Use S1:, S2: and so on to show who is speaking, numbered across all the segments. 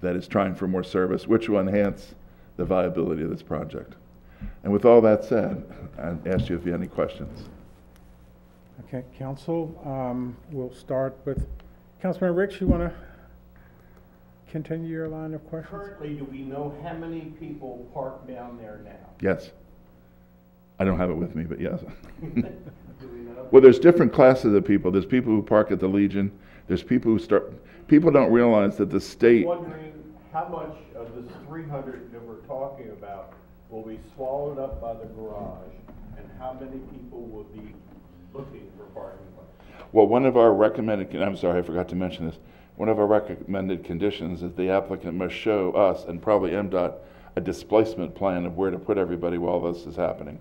S1: that is trying for more service, which will enhance the viability of this project. And with all that said, I ask you if you have any questions.
S2: Okay, council, um, we'll start with, Councilman Ricks, you want to continue your line of questions?
S3: Currently, do we know how many people park down there now?
S1: Yes? I don't have it with me, but yes.
S3: Do we know?
S1: Well, there's different classes of people. There's people who park at the Legion. There's people who start, people don't realize that the state,
S3: Wondering how much of this three hundred that we're talking about will be swallowed up by the garage? And how many people will be looking for parking places?
S1: well, one of our recommended, con- I'm sorry, I forgot to mention this. One of our recommended conditions is the applicant must show us and probably MDOT a displacement plan of where to put everybody while this is happening.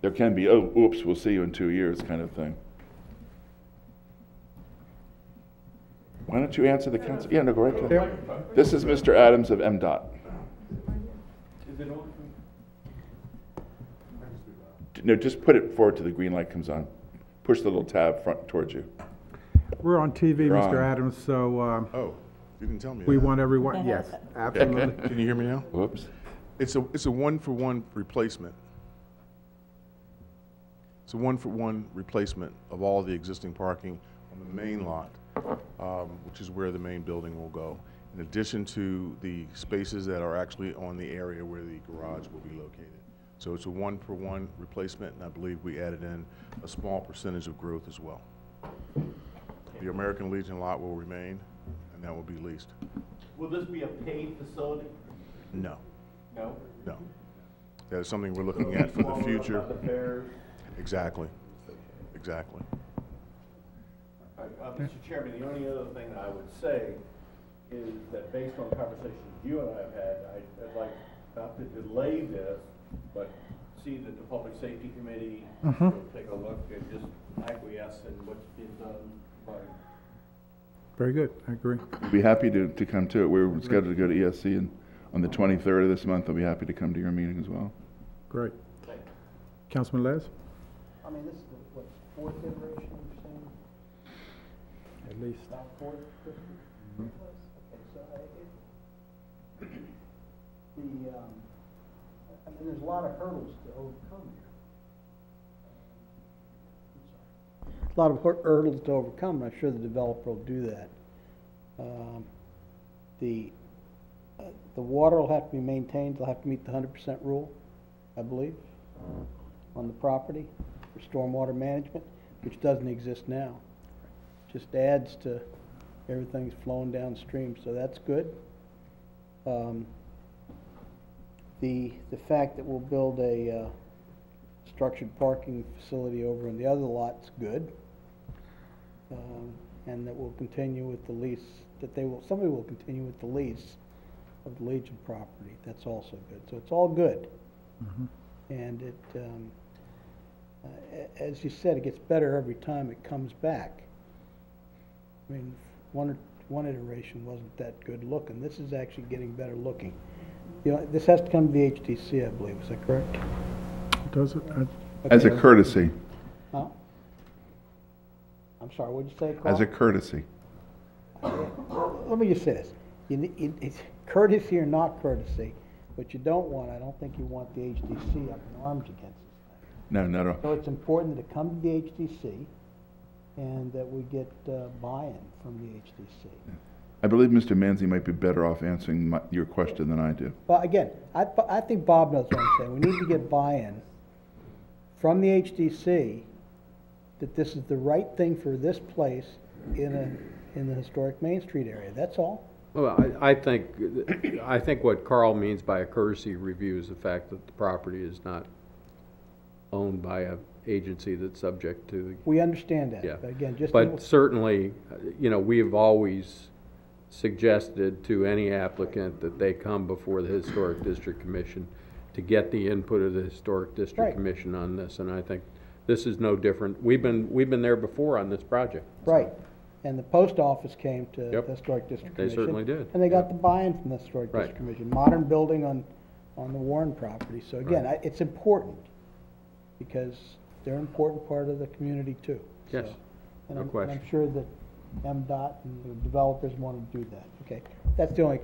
S1: There can be, oh, oops, we'll see you in two years kind of thing. Why don't you answer the council? Yeah, no, go right
S2: Yeah.
S1: ahead. This is Mr. Adams of MDOT.
S3: Is it on?
S1: No, just put it forward to the green light comes on. Push the little tab front towards you.
S2: We're on TV,
S1: You're
S2: Mr.
S1: on.
S2: Adams, so um,
S4: Oh, you didn't tell me.
S2: we
S4: that.
S2: want everyone, yes, absolutely.
S4: Can you hear me now?
S1: Whoops.
S4: It's a, it's a one-for-one replacement. It's a one-for-one replacement of all the existing parking on the main lot, um, which is where the main building will go, in addition to the spaces that are actually on the area where the garage will be located. So it's a one-for-one replacement, and I believe we added in a small percentage of growth as well. The American Legion lot will remain, and that will be leased.
S3: Will this be a paid facility?
S4: No.
S3: No?
S4: No. That is something we're looking at for
S3: Swallowed
S4: the
S3: up
S4: future.
S3: by the fares?
S4: Exactly. Exactly.
S3: Uh, uh, Mr. Chairman, the only other thing that I would say is that based on conversations you and I have had, I- I'd like not to delay this, but see that the Public Safety Committee will take a look and just acquiesce in what's been done by,
S2: Very good, I agree.
S1: We'd be happy to, to come to it. We're scheduled to E go to ESC and on the 23rd of this month. I'll be happy to come to your meeting as well.
S2: Great.
S3: thank you.
S2: Councilman Les?
S5: I mean, this is the, what, fourth iteration you're saying,
S2: At least.
S5: about fourth, fifth? Okay, so I, it, the, um, I- I mean, there's a lot of hurdles to overcome here. Um, I'm sorry. A lot of hur- hurdles to overcome, and I'm sure the developer will do that. Um, The, uh, the water will have to be maintained, they'll have to meet the hundred percent rule, I believe, on the property for stormwater management, which doesn't exist now just adds to everything's flowing downstream, so that's good. Um, The, the fact that we'll build a uh, structured parking facility over in the other lot's good. Um, And that we'll continue with the lease, that they will, somebody will continue with the lease of the Legion property, that's also good, so it's all good. And it, um, uh, a- as you said, it gets better every time it comes back. I mean, one, one iteration wasn't that good looking. This is actually getting better looking. You know, this has to come to the HTC, I believe, is that correct?
S2: Does it? uh, I-
S1: As a
S5: Okay.
S1: courtesy,
S5: Huh? I'm sorry, what'd you say, Carl?
S1: as a courtesy.
S5: Let me just say this. You, ne- it- it's courtesy or not courtesy, what you don't want, I don't think you want the HTC up in arms against us.
S1: No, not at all.
S5: So it's important that it come to the HTC and that we get uh, buy-in from the HTC.
S1: I believe Mr. Manzi might be better off answering my, your question than I do.
S5: Well, again, I, I think Bob knows what I'm saying. We need to get buy-in from the HDC that this is the right thing for this place in a, in the historic Main Street area. That's all.
S6: Well, I, I think, I think what Carl means by a courtesy review is the fact that the property is not owned by a agency that's subject to,
S5: We understand that.
S6: yeah.
S5: But again, just,
S6: But certainly, you know, we have always suggested to any applicant that they come before the Historic District Commission to get the input of the Historic
S5: Right.
S6: District Commission on this, and I think this is no different. We've been, we've been there before on this project.
S5: right. And the post office came to the
S6: Yep.
S5: Historic District
S6: They
S5: Commission.
S6: certainly did.
S5: And they got the buy-in from the Historic
S6: Right.
S5: District Commission. Modern building on, on the Warren property. So again, I- it's important because they're an important part of the community too.
S6: Yes.
S5: So- And
S6: No
S5: I'm, and
S6: question.
S5: I'm sure that MDOT and the developers want to do that. Okay, that's the only